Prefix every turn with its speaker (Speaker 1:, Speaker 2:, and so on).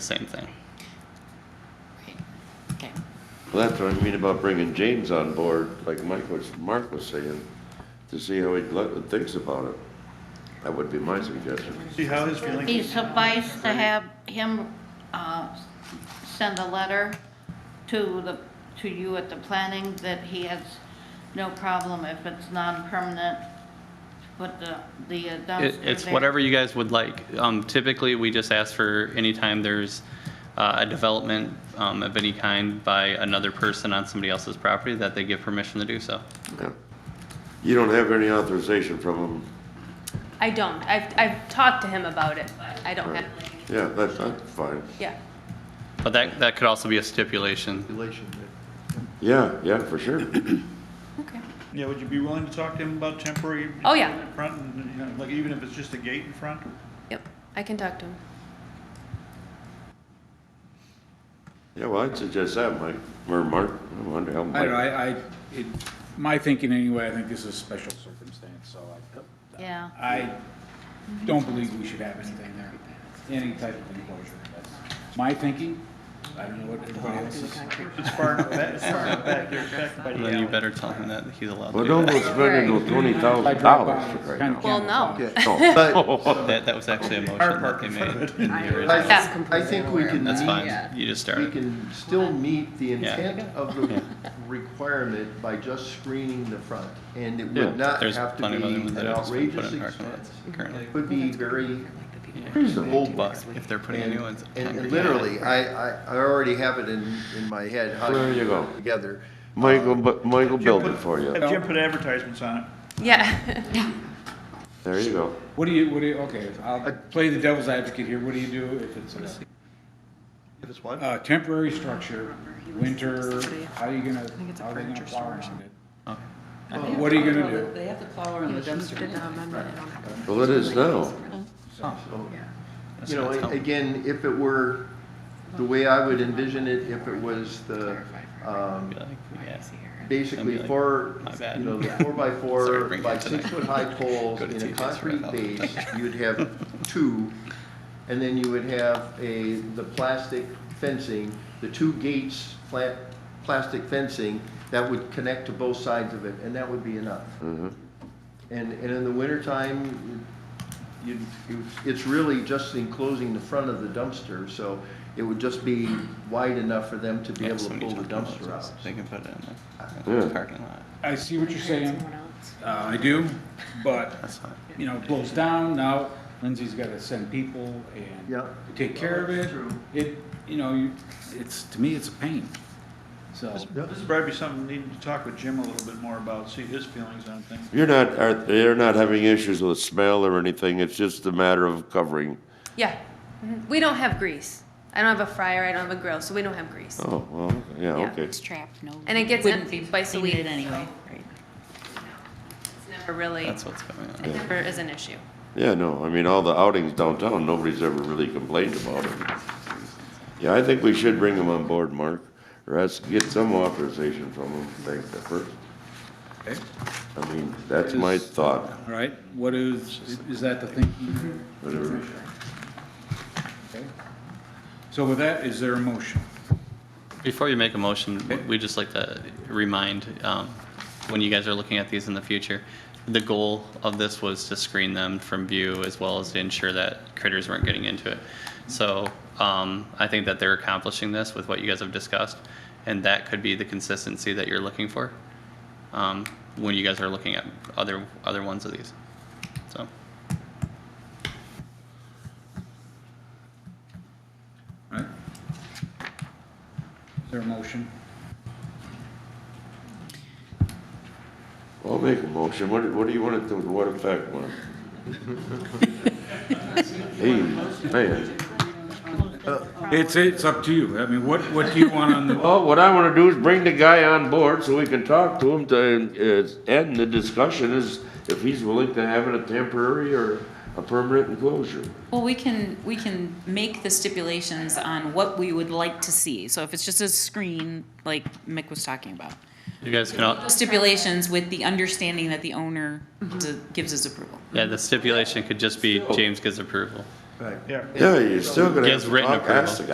Speaker 1: same thing.
Speaker 2: Right. Okay.
Speaker 3: Well, that's what I mean about bringing James on board, like Mike was, Mark was saying, to see how he lo- thinks about it. That would be my suggestion.
Speaker 4: See how his feelings.
Speaker 5: Be suffice to have him, uh, send a letter to the, to you at the planning that he has no problem if it's non-permanent, to put the, the dumpster
Speaker 1: It, it's
Speaker 5: there.
Speaker 1: whatever you guys would like. Um, typically, we just ask for anytime there's uh, a development um, of any kind by another person on somebody else's property that they give permission to do so.
Speaker 3: Yeah. You don't have any authorization from him.
Speaker 6: I don't. I've, I've talked to him about it, but I don't have,
Speaker 3: Yeah, that's, that's fine.
Speaker 6: yeah.
Speaker 1: But that, that could also be a stipulation.
Speaker 3: Yeah, yeah, for sure.
Speaker 6: Okay.
Speaker 4: Yeah, would you be willing to talk to him about temporary?
Speaker 6: Oh, yeah.
Speaker 4: in Front, and, you know, like even if it's just a gate in front?
Speaker 6: Yep. I can talk to him.
Speaker 3: Yeah, well, I'd suggest that, Mike, or Mark, I wonder how.
Speaker 7: I don't know,
Speaker 3: Mike-
Speaker 7: I, I, it, my thinking anyway, I think this is a special circumstance, so
Speaker 5: Yeah.
Speaker 7: I, I don't believe we should have anything there, any type of enclosure. That's my thinking, I don't know what everybody else's.
Speaker 4: It's far enough back, it's far enough back, there's back by the
Speaker 1: Then you
Speaker 4: alley.
Speaker 1: better tell him that he's allowed to
Speaker 3: Well,
Speaker 1: do
Speaker 3: don't
Speaker 1: that.
Speaker 3: go spending those twenty
Speaker 7: I
Speaker 3: thousand
Speaker 7: drive by,
Speaker 3: dollars
Speaker 7: it's
Speaker 3: right now.
Speaker 7: kinda
Speaker 6: Well, no.
Speaker 8: Yeah.
Speaker 3: No, but-
Speaker 1: That, that was actually a motion that they made.
Speaker 8: I think- I think we can
Speaker 1: That's fine.
Speaker 8: meet,
Speaker 1: You just
Speaker 8: we
Speaker 1: started.
Speaker 8: can still meet the
Speaker 1: Yeah.
Speaker 8: intent of the requirement by just screening the front. And it
Speaker 3: Yeah.
Speaker 8: would not
Speaker 1: There's
Speaker 8: have to
Speaker 1: plenty
Speaker 8: be
Speaker 1: of other ones
Speaker 8: an
Speaker 1: that I just put
Speaker 8: outrageous
Speaker 1: in parking lots
Speaker 8: expense.
Speaker 1: currently.
Speaker 8: It would be very
Speaker 3: reasonable.
Speaker 1: But if they're putting
Speaker 8: And-
Speaker 1: new ones.
Speaker 8: And
Speaker 1: concrete,
Speaker 8: and
Speaker 1: yeah.
Speaker 8: literally, I, I, I already have it in, in my head, how
Speaker 3: There you
Speaker 8: to
Speaker 3: go.
Speaker 8: put it together.
Speaker 3: Michael, but Michael built it for you.
Speaker 4: Have Jim put advertisements on it.
Speaker 6: Yeah.
Speaker 3: There you go.
Speaker 7: What do you, what do you, okay, I'll play the devil's advocate here, what do you do if it's a
Speaker 8: If it's what?
Speaker 7: A temporary structure, winter, how are you gonna, how are they gonna plow around it? What are you gonna do?
Speaker 9: They have to plow around the dumpster.
Speaker 3: Well, it is now.
Speaker 8: You know, a- again, if it were, the way I would envision it, if it was the, um,
Speaker 1: Be like, yeah.
Speaker 8: basically
Speaker 1: That'd be like,
Speaker 8: four,
Speaker 1: my bad.
Speaker 8: you know, the four by
Speaker 1: Sorry to
Speaker 8: four
Speaker 1: bring it
Speaker 8: by
Speaker 1: up tonight.
Speaker 8: six foot high poles
Speaker 1: Go to
Speaker 8: in a
Speaker 1: TJ's for
Speaker 8: concrete
Speaker 1: help.
Speaker 8: base, you'd have two. And then you would have a, the plastic fencing, the two gates, pla- plastic fencing that would connect to both sides of it, and that would be enough.
Speaker 1: Mm-hmm.
Speaker 8: And, and in the wintertime, you, you, it's really just enclosing the front of the dumpster, so it would just be wide enough for them to be
Speaker 1: Yeah,
Speaker 8: able to
Speaker 1: somebody
Speaker 8: pull the
Speaker 1: talked about
Speaker 8: dumpster
Speaker 1: this.
Speaker 8: out.
Speaker 1: They can put it in the
Speaker 3: Yeah.
Speaker 1: parking lot.
Speaker 7: I see what you're saying. Uh, I do, but,
Speaker 1: That's fine.
Speaker 7: you know, it blows down, now Lindsay's gotta send people and
Speaker 8: Yeah.
Speaker 7: to take care of it. It, you know, you, it's, to me, it's a pain, so.
Speaker 4: This is probably something we need to talk with Jim a little bit more about, see his feelings on things.
Speaker 3: You're not, are, they're not having issues with smell or anything, it's just a matter of covering.
Speaker 6: Yeah. Mhm. We don't have grease. I don't have a fryer. I don't have a grill, so we don't have grease.
Speaker 3: Oh, well, yeah,
Speaker 6: Yeah.
Speaker 3: okay.
Speaker 2: It's trapped, no.
Speaker 6: And it gets
Speaker 9: Wouldn't
Speaker 6: empty
Speaker 9: be
Speaker 6: twice a
Speaker 9: cleaned
Speaker 6: week.
Speaker 9: anyway.
Speaker 6: It's never really,
Speaker 1: That's
Speaker 6: it
Speaker 1: what's going on.
Speaker 6: never is an issue.
Speaker 3: Yeah, no, I mean, all the outings downtown, nobody's ever really complained about it. Yeah, I think we should bring them on board, Mark, or ask, get some authorization from them, like the first.
Speaker 7: Okay.
Speaker 3: I mean, that's my thought,
Speaker 7: All right, what is, is that the thinking?
Speaker 3: whatever.
Speaker 7: Okay. So with that, is there a motion?
Speaker 1: Before you make a motion, w- we just like to remind, um, when you guys are looking at these in the future, the goal of this was to screen them from view as well as to ensure that critters weren't getting into it. So, um, I think that they're accomplishing this with what you guys have discussed, and that could be the consistency that you're looking for, um, when you guys are looking at other, other ones of these. So,
Speaker 7: All right. Is there a motion?
Speaker 3: I'll make a motion, what, what do you want it to, what effect, Mark? Hey, man.
Speaker 7: It's, it's up to you. I mean, what, what do you want on the,
Speaker 3: Well, what I wanna do is bring the guy on board so we can talk to him to, uh, end the discussion is if he's willing to have it a temporary or a permanent enclosure.
Speaker 9: Well, we can, we can make the stipulations on what we would like to see. So if it's just a screen, like Mick was talking about.
Speaker 1: you guys can, al-
Speaker 9: Stipulations with the understanding that the owner d- gives his approval.
Speaker 1: yeah, the stipulation could just be James gives approval.
Speaker 8: Right.
Speaker 4: Yeah.
Speaker 3: Yeah, you're still gonna have
Speaker 1: Yes,
Speaker 3: to
Speaker 1: written
Speaker 3: talk, ask the
Speaker 1: approval.